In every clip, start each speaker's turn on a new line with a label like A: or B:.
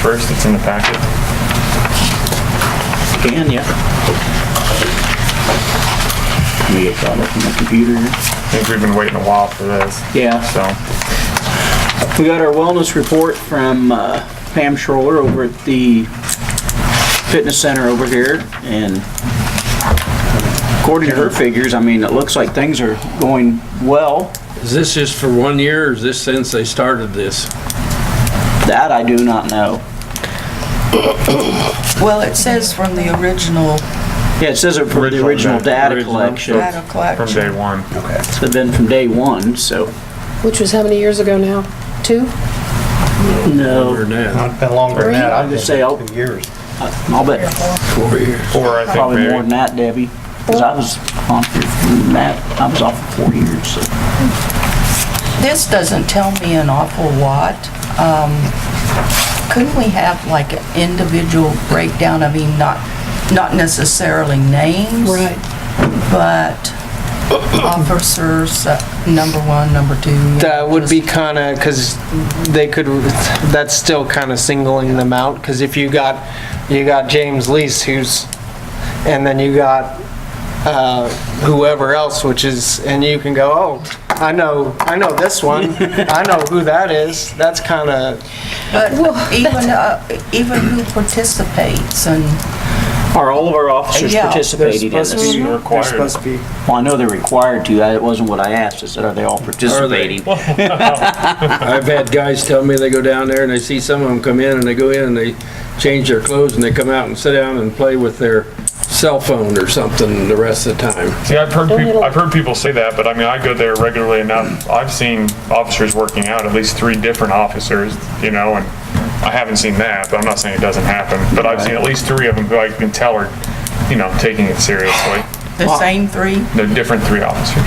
A: first, it's in the packet.
B: Can, yeah. Let me get that up on my computer. here.
A: I think we've been waiting a while for this.
B: Yeah.
A: So,
B: We got our wellness report from uh, Pam Schroller over at the fitness center over here, and according to her figures, I mean, it looks like things are going well.
C: Is this just for one year, or is this since they started this?
B: That I do not know.
D: Well, it says from the original
B: Yeah, it says it for the
A: Original
B: original
A: data.
B: data
C: Original.
B: collection,
D: data
A: from
D: collection.
A: day one.
B: it's been from day one, so.
E: Which was how many years ago now? Two?
C: Or
B: No.
C: now?
F: Not been longer than that, I've been
B: Say, oh.
F: here two years.
B: I'll bet
C: Four years.
A: Or I think
B: probably
A: maybe-
B: more than that, Debbie, because I was on for that, I was off for four years, so.
D: This doesn't tell me an awful lot. Um, Couldn't we have like an individual breakdown? I mean, not, not necessarily names. But officers, uh, number one, number two.
G: That would be kind of, because they could, that's still kind of singling them out, because if you got, you got James Lease who's, and then you got uh, whoever else, which is, and you can go, oh, I know, I know this one, I know who that is, that's kind of,
D: But even, uh, even who participates and,
B: Are all of our officers
D: Yeah.
G: they're
B: participating in
G: supposed to
B: this?
G: be, they're
A: required.
G: supposed to be.
B: Well, I know they're required to, I- it wasn't what I asked, I said, are they all participating?
C: I've had guys tell me they go down there and they see some of them come in and they go in and they change their clothes and they come out and sit down and play with their cell phone or something the rest of the time.
A: See, I've heard people, I've heard people say that, but I mean, I go there regularly enough. I've seen officers working out, at least three different officers, you know, and I haven't seen that, but I'm not saying it doesn't happen. But I've seen at least three of them who I can tell are, you know, taking it seriously.
D: the same three?
A: They're different three officers.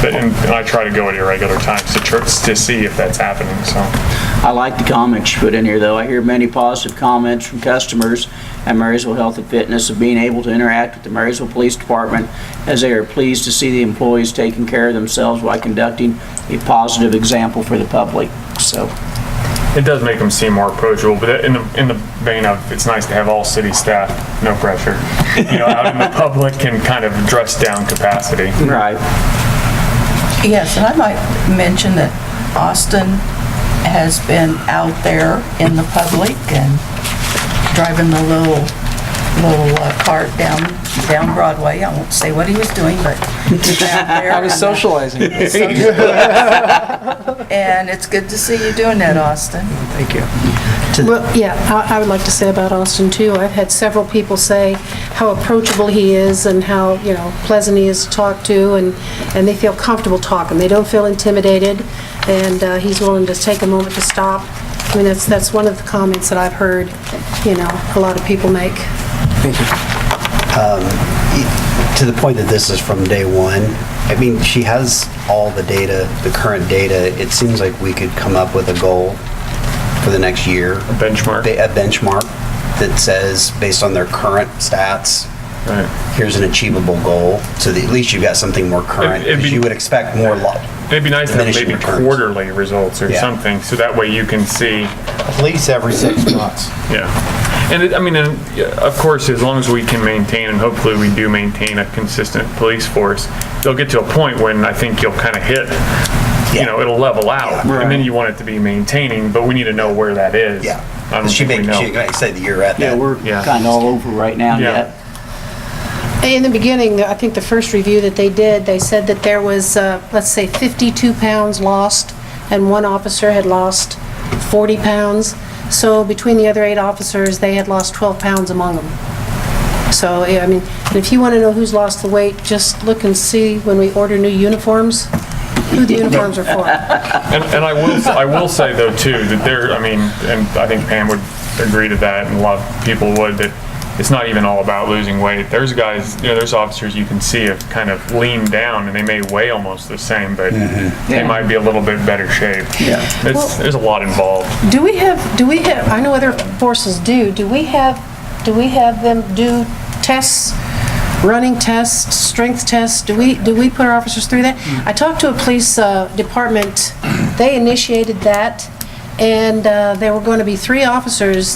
A: But, and and I try to go at irregular times to tr to see if that's happening, so.
B: I like the comments you put in here, though. I hear many positive comments from customers at Marysville Health and Fitness of being able to interact with the Marysville Police Department as they are pleased to see the employees taking care of themselves while conducting a positive example for the public, so.
A: It does make them seem more approachable, but in the, in the vein of, it's nice to have all city staff, no pressure. You know, out in the public can kind of dress down capacity.
B: Right.
D: Yes, and I might mention that Austin has been out there in the public and driving the little, little uh, cart down, down Broadway. I won't say what he was doing, but he's out there.
G: I was socializing.
D: And it's good to see you doing that, Austin.
G: Thank you.
E: Well, yeah, I I would like to say about Austin too, I've had several people say how approachable he is and how, you know, pleasant he is to talk to, and, and they feel comfortable talking, they don't feel intimidated, and uh, he's willing to take a moment to stop. I mean, that's, that's one of the comments that I've heard, you know, a lot of people make.
F: To the point that this is from day one, I mean, she has all the data, the current data. It seems like we could come up with a goal for the next year. A
A: benchmark.
F: A benchmark that says, based on their current stats, here's an achievable goal, so that at least you've got something more current.
A: It'd be-
F: You would expect more, lo-
A: It'd be nice to have
F: Diminishing
A: maybe
F: returns.
A: quarterly results or
F: Yeah.
A: something, so that way you can see,
H: At least every six months.
A: yeah. And it, I mean, and, yeah, of course, as long as we can maintain, and hopefully we do maintain a consistent police force, they'll get to a point when I think you'll kind of hit, you
F: Yeah.
A: know, it'll level out.
B: Yeah.
A: And then you want it to be maintaining, but we need to know where that is.
F: yeah.
A: I don't
F: She
A: think we
F: may, she
A: know.
F: may say that you're at
B: Yeah,
F: that.
B: we're
A: Yeah.
B: kind of all over right now
A: Yeah.
B: yet.
E: In the beginning, I think the first review that they did, they said that there was, uh, let's say, 52 pounds lost, and one officer had lost 40 pounds. So between the other eight officers, they had lost 12 pounds among them. So, yeah, I mean, and if you want to know who's lost the weight, just look and see when we order new uniforms, who the uniforms are for.
A: And, and I will, I will say though too, that there, I mean, and I think Pam would agree to that and a lot of people would, that it's not even all about losing weight. There's guys, you know, there's officers you can see have kind of leaned down and they may weigh almost the same, but they
B: Yeah.
A: might be a little bit better shaped. Yeah. It's, there's a lot involved.
E: Do we have, do we have, I know other forces do, do we have, do we have them do tests, running tests, strength tests? Do we, do we put our officers through that? I talked to a police uh, department, they initiated that, and uh, there were going to be three officers